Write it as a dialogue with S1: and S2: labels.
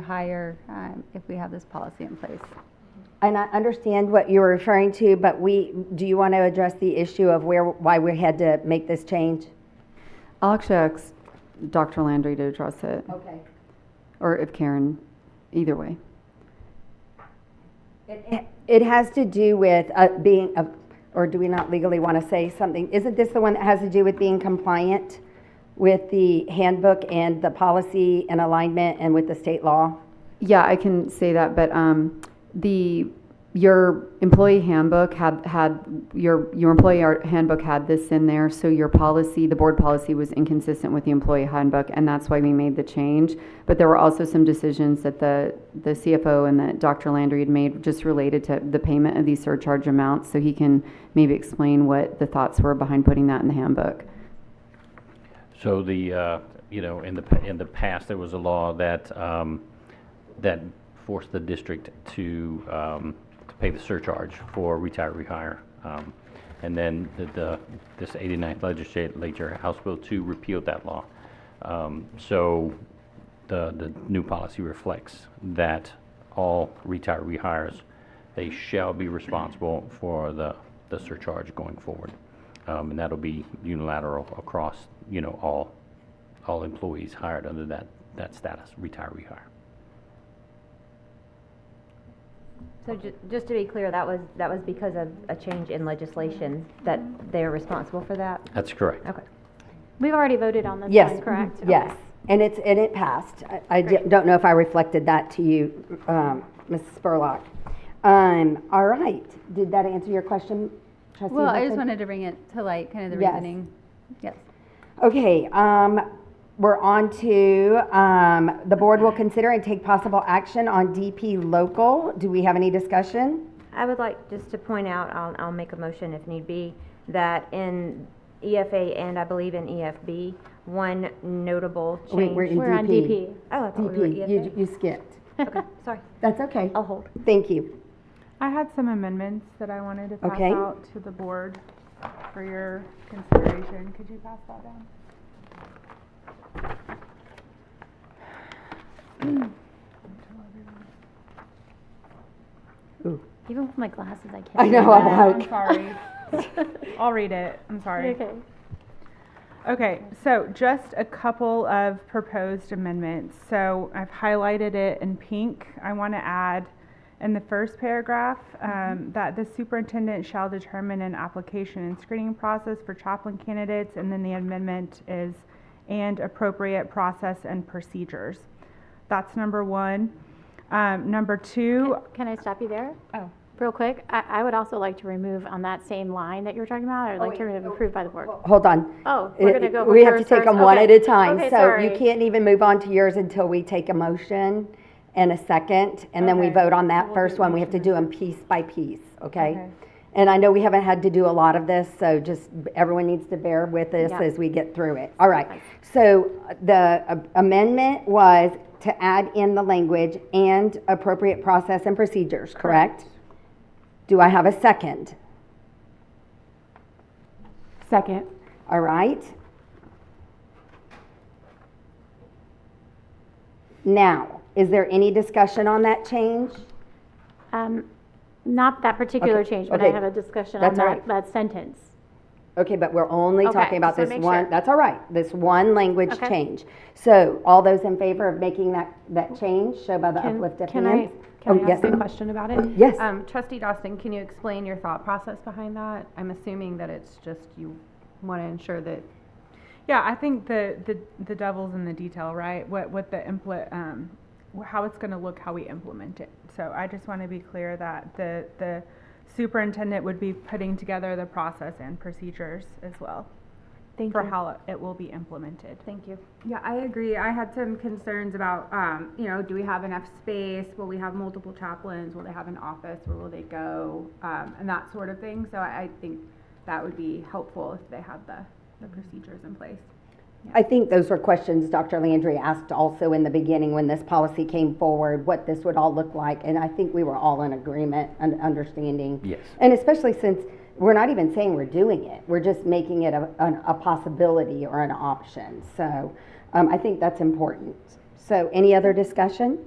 S1: rehire um, if we have this policy in place.
S2: And I understand what you're referring to, but we, do you want to address the issue of where, why we had to make this change?
S3: I'll actually ask Dr. Landry to address it,
S2: Okay.
S3: or if Karen, either way.
S2: It has to do with uh, being, a- or do we not legally want to say something? Isn't this the one that has to do with being compliant with the handbook and the policy and alignment and with the state law?
S3: Yeah, I can say that, but um, the, your employee handbook had, had, your, your employee ar- handbook had this in there, so your policy, the board policy was inconsistent with the employee handbook, and that's why we made the change. But there were also some decisions that the, the CFO and that Dr. Landry had made just related to the payment of these surcharge amounts, so he can maybe explain what the thoughts were behind putting that in the handbook.
S4: So the, uh, you know, in the, pa- in the past, there was a law that, um, that forced the district to, um, to pay the surcharge for retiree hire. Um, And then the- the, this 89th legislature, House Bill 2 repealed that law. Um, So the, the new policy reflects that all retiree hires, they shall be responsible for the, the surcharge going forward. Um, and that'll be unilateral across, you know, all, all employees hired under that, that status, retiree hire.
S5: So ju- just to be clear, that was, that was because of a change in legislation that they're responsible for that?
S4: That's correct.
S5: Okay. Mm-hmm.
S1: We've already voted on this
S2: Yes. Mm-hmm.
S1: one, correct?
S2: Yes, and it's, and it passed. I- I di- don't know if I reflected that to you, um, Mrs. Spurlock. Um, All right, did that answer your question, trustee
S1: Well, I just
S2: Hudson?
S1: wanted to bring it to light, kind of the
S2: Yes.
S1: reasoning. Yes.
S2: Okay, um, we're on to, um, the board will consider and take possible action on DP local. Do we have any discussion?
S5: I would like just to point out, I'll, I'll make a motion if need be, that in EFA and I believe in EFB, one notable
S2: Wait,
S5: change.
S2: in
S1: We're on DP.
S5: Oh, I thought we were
S2: DP, you,
S5: EFA.
S2: you skipped.
S5: Okay, sorry,
S2: That's okay.
S5: I'll hold.
S2: Thank you.
S6: I had some amendments that I wanted to pass
S2: Okay.
S6: out to the board for your consideration. Could you pass that down?
S1: Even with my glasses, I can't.
S2: I know, I'm
S6: I'm
S2: like,
S6: sorry. I'll read it. I'm sorry.
S1: Okay.
S6: Okay, so just a couple of proposed amendments. So I've highlighted it in pink. I want to add in the first paragraph um, that the superintendent shall determine an application and screening process for chaplain candidates, and then the amendment is and appropriate process and procedures. That's number one. Um, number two,
S7: Can I stop you there?
S6: Oh.
S7: Real quick, I, I would also like to remove on that same line that you were talking about, I'd
S2: Oh,
S7: like to remove approved by the board.
S2: hold on.
S7: Oh, we're
S2: It-
S7: gonna go.
S2: We
S7: with
S2: have to
S7: yours
S2: take
S7: first.
S2: them one
S7: Okay.
S2: at a time.
S7: Okay,
S2: So you
S7: sorry.
S2: can't even move on to yours until we take a motion and a second, and then we vote on that first one. We have to do them piece by piece, okay?
S6: Okay.
S2: And I know we haven't had to do a lot of this, so just, everyone needs to bear with us
S7: Yeah.
S2: as we get through it. All right. So the uh, amendment was to add in the language and appropriate process and procedures, correct? Do I have a second?
S6: second.
S2: All right. Now, is there any discussion on that change?
S7: Um, Not that particular
S2: Okay,
S7: change, but I
S2: okay.
S7: have a discussion on
S2: That's all right.
S7: that, that sentence.
S2: Okay, but we're only
S7: Okay,
S2: talking about
S7: just wanna
S2: this
S7: make
S2: one,
S7: sure.
S2: that's all right, this one language
S7: Okay.
S2: change. So all those in favor of making that, that change, show by the
S8: Can-
S2: uplifted
S8: Can I,
S2: hands.
S8: can
S2: Oh,
S8: I ask
S2: yes.
S8: a question about it?
S2: Yes.
S8: Um, Trustee Dawson, can you explain your thought process behind that? I'm assuming that it's just you want to ensure that
S6: Yeah, I think the, the, the devil's in the detail, right? What, what the impl- um, wh- how it's gonna look, how we implement it. So I just wanna be clear that the, the superintendent would be putting together the process and procedures as well. For how it- it will be implemented.
S9: Thank you. Yeah, I agree. I had some concerns about, um, you know, do we have enough space? Will we have multiple chaplains? Will they have an office? Where will they go? Um, and that sort of thing. So I, I think that would be helpful if they had the, the procedures in place.
S2: I think those were questions Dr. Landry asked also in the beginning when this policy came forward, what this would all look like, and I think we were all in agreement and understanding.
S4: Yes.
S2: And especially since we're not even saying we're doing it, we're just making it a, an, a possibility or an option. So um, I think that's important. So any other discussion?